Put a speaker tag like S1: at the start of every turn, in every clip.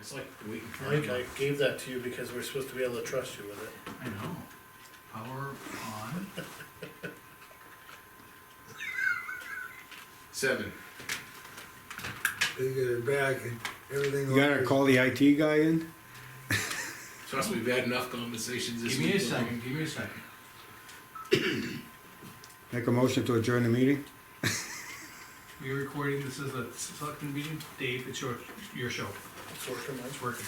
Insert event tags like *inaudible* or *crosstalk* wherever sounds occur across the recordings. S1: It's like waiting for.
S2: Mike, I gave that to you because we're supposed to be able to trust you with it.
S1: I know. Power on.
S3: Seven.
S4: They get it back and everything.
S5: You gotta call the IT guy in?
S3: Trust me, we've had enough conversations this
S1: Give me
S3: week.
S1: a second, give me a second.
S5: Make a motion to adjourn the meeting?
S1: We're recording, this is a selectman meeting. Dave, it's your, your show.
S2: It's working, Mike.
S1: It's working.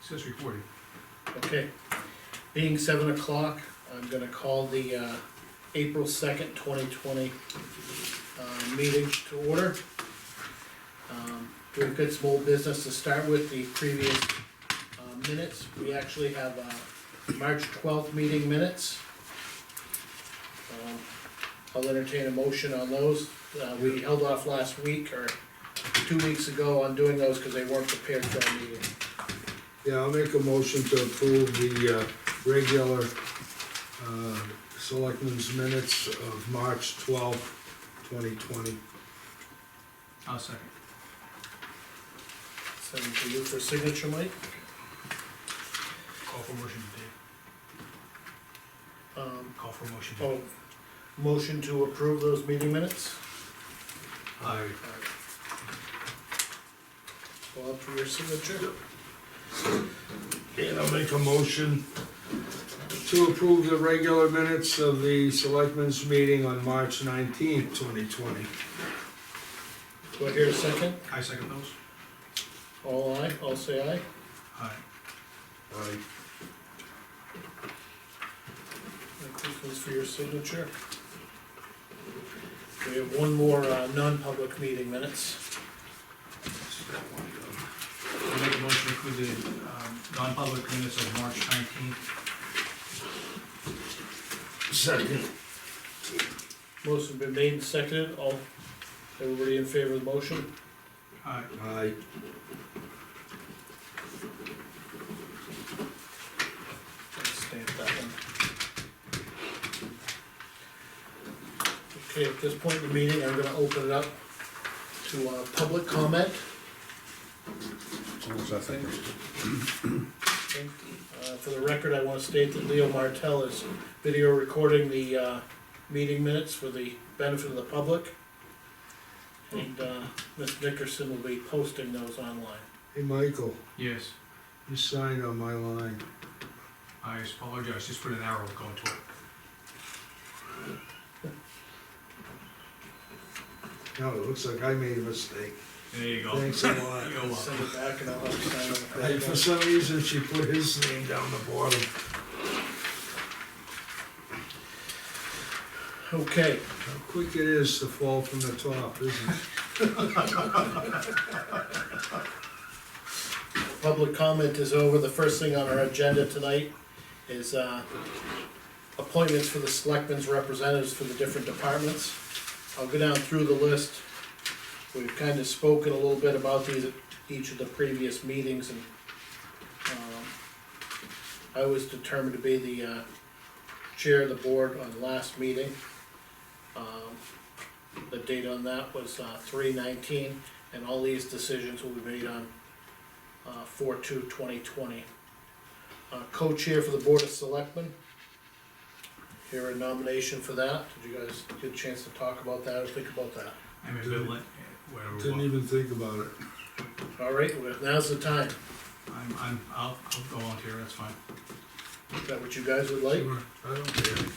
S1: It Says recording.
S2: Okay, being seven o'clock, I'm gonna call the, uh, April second, twenty twenty, uh, meeting to order. Um, We've got some old business to start with, the previous, uh, minutes, we actually have, uh, March twelfth meeting minutes. Um, I'll entertain a motion on those, uh, we held off last week or two weeks ago on doing those, cause they weren't prepared for our meeting.
S4: Yeah, I'll make a motion to approve the, uh, regular, uh, selectmen's minutes of March twelfth, twenty twenty.
S1: I'll Oh, second.
S2: Send them to you for signature, Mike.
S1: Call for motion, Dave.
S2: Um,
S1: Call for motion. Dave.
S2: oh, motion to approve those meeting minutes?
S4: Aye.
S2: Bob, for your signature?
S4: And I'll make a motion to approve the regular minutes of the selectmen's meeting on March nineteenth, twenty twenty.
S2: Do I hear a second?
S1: I second those.
S2: All aye, all say aye.
S1: Aye.
S4: Aye.
S2: That goes for your signature. We have one more, uh, non-public meeting minutes.
S1: I make a motion to include the, um, non-public minutes of March nineteenth.
S4: Second.
S2: Motion been made and seconded, all, everybody in favor of the motion?
S1: Aye.
S4: Aye.
S2: Let's Stamp that one. Okay, at this point in the meeting, I'm gonna open it up to, uh, public comment. Uh, For the record, I wanna state that Leo Martell is video recording the, uh, meeting minutes for the benefit of the public. And, uh, Ms. Dickerson will be posting those online.
S4: Hey, Michael,
S1: Yes.
S4: you signed on my line.
S1: I apologize, just put an arrow going to it.
S4: No, it looks like I made a mistake.
S1: There you go.
S4: Thanks a lot. *laughs*
S1: You're welcome.
S2: Send it back and I'll have to sign on
S4: Hey,
S2: the
S4: for
S2: front.
S4: some reason, she put his name down the bottom.
S2: Okay,
S4: How quick it is to fall from the top, isn't it?
S2: public comment is over. The first thing on our agenda tonight is, uh, appointments for the selectmen's representatives for the different departments. I'll go down through the list. We've kind of spoken a little bit about these, at each of the previous meetings and, um, I was determined to be the, uh, chair of the board on the last meeting. Um, The date on that was, uh, three nineteen, and all these decisions will be made on, uh, four two twenty twenty. Uh, co-chair for the Board of Selectmen. Here a nomination for that. Did you guys get a chance to talk about that or think about that?
S1: I'm a bit late, whatever. we
S4: Didn't
S1: want.
S4: even think about it.
S2: All right, well, now's the time.
S1: I'm, I'm, I'll, I'll go on here, that's fine.
S2: Is that what you guys would like?
S4: I don't care.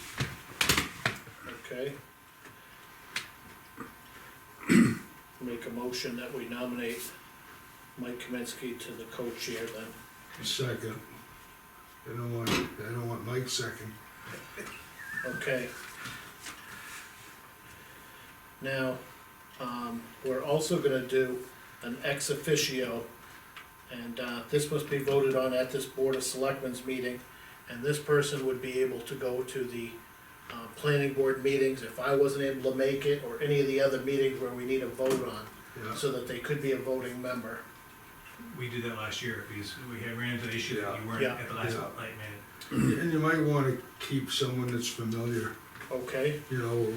S2: Okay. Make a motion that we nominate Mike Kaminsky to the co-chair then.
S4: Second. I don't want, I don't want Mike second.
S2: Okay. Now, um, we're also gonna do an ex officio, and, uh, this must be voted on at this Board of Selectmen's meeting, and this person would be able to go to the, uh, planning board meetings if I wasn't able to make it, or any of the other meetings where we need a vote on,
S4: Yeah.
S2: so that they could be a voting member.
S1: We did that last year, because we had ran into the issue that you weren't
S2: Yeah.
S1: at the last
S4: Yeah.
S1: light minute.
S4: And you might wanna keep someone that's familiar,
S2: Okay,
S4: you know,